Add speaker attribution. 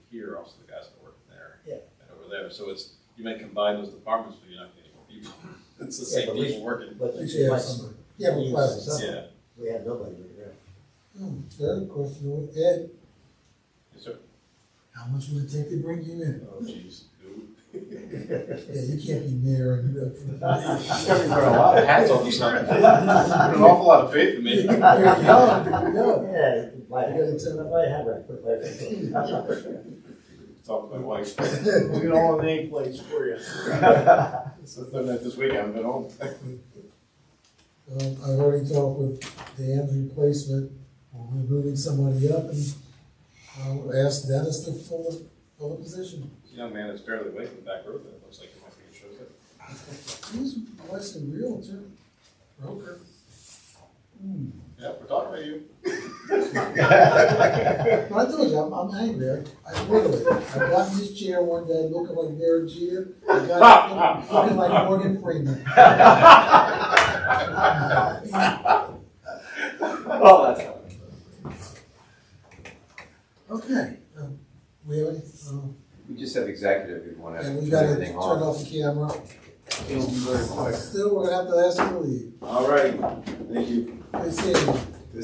Speaker 1: here, also the guys that work there.
Speaker 2: Yeah.
Speaker 1: And over there, so it's, you may combine those departments, but you're not getting more people. It's the
Speaker 3: Yeah,
Speaker 1: same
Speaker 3: but we-
Speaker 1: people working.
Speaker 3: But
Speaker 2: We
Speaker 3: it's
Speaker 2: should have
Speaker 3: like,
Speaker 2: somebody. Yeah, we probably have somebody.
Speaker 1: Yeah,
Speaker 3: we have nobody right now.
Speaker 2: Hmm, The other question was, Ed,
Speaker 1: Yes, sir.
Speaker 2: how much would it take to bring you in?
Speaker 1: Oh, jeez, who?
Speaker 2: Yeah, you can't be mayor and you're up for
Speaker 1: I'm
Speaker 2: the.
Speaker 1: gonna put a lot of hats on this side. Put an awful lot of faith in me.
Speaker 2: There you go, there you go.
Speaker 3: Yeah, my,
Speaker 2: You gotta tell-
Speaker 3: my hand right quick, my-
Speaker 1: Talk to my wife.
Speaker 4: We can all name plates for you.
Speaker 1: So I've done that this week, I haven't been home.
Speaker 2: Um, I've already talked with Dan's replacement, we're moving somebody up and I'll ask Dennis to fill the, fill the position.
Speaker 1: Young man is barely awake in the back road, that looks like he might be in shows up.
Speaker 2: He's, was a realtor, broker. Hmm.
Speaker 1: Yeah, we're talking about you.
Speaker 2: But I told you, I'm, I'm angry. I literally, I got in this chair one day looking like Derek Jeter. I got up looking like Morgan Freeman.
Speaker 4: Oh, that's.
Speaker 2: Okay, um, we have, any- um,
Speaker 5: We just have executive, we want to
Speaker 2: and we
Speaker 5: turn
Speaker 2: gotta turn
Speaker 5: everything
Speaker 2: off
Speaker 5: off.
Speaker 2: the camera.
Speaker 4: It'll be very quick.
Speaker 2: Still, we're gonna have to ask you to leave.
Speaker 1: All right, thank you.
Speaker 2: Good seeing you.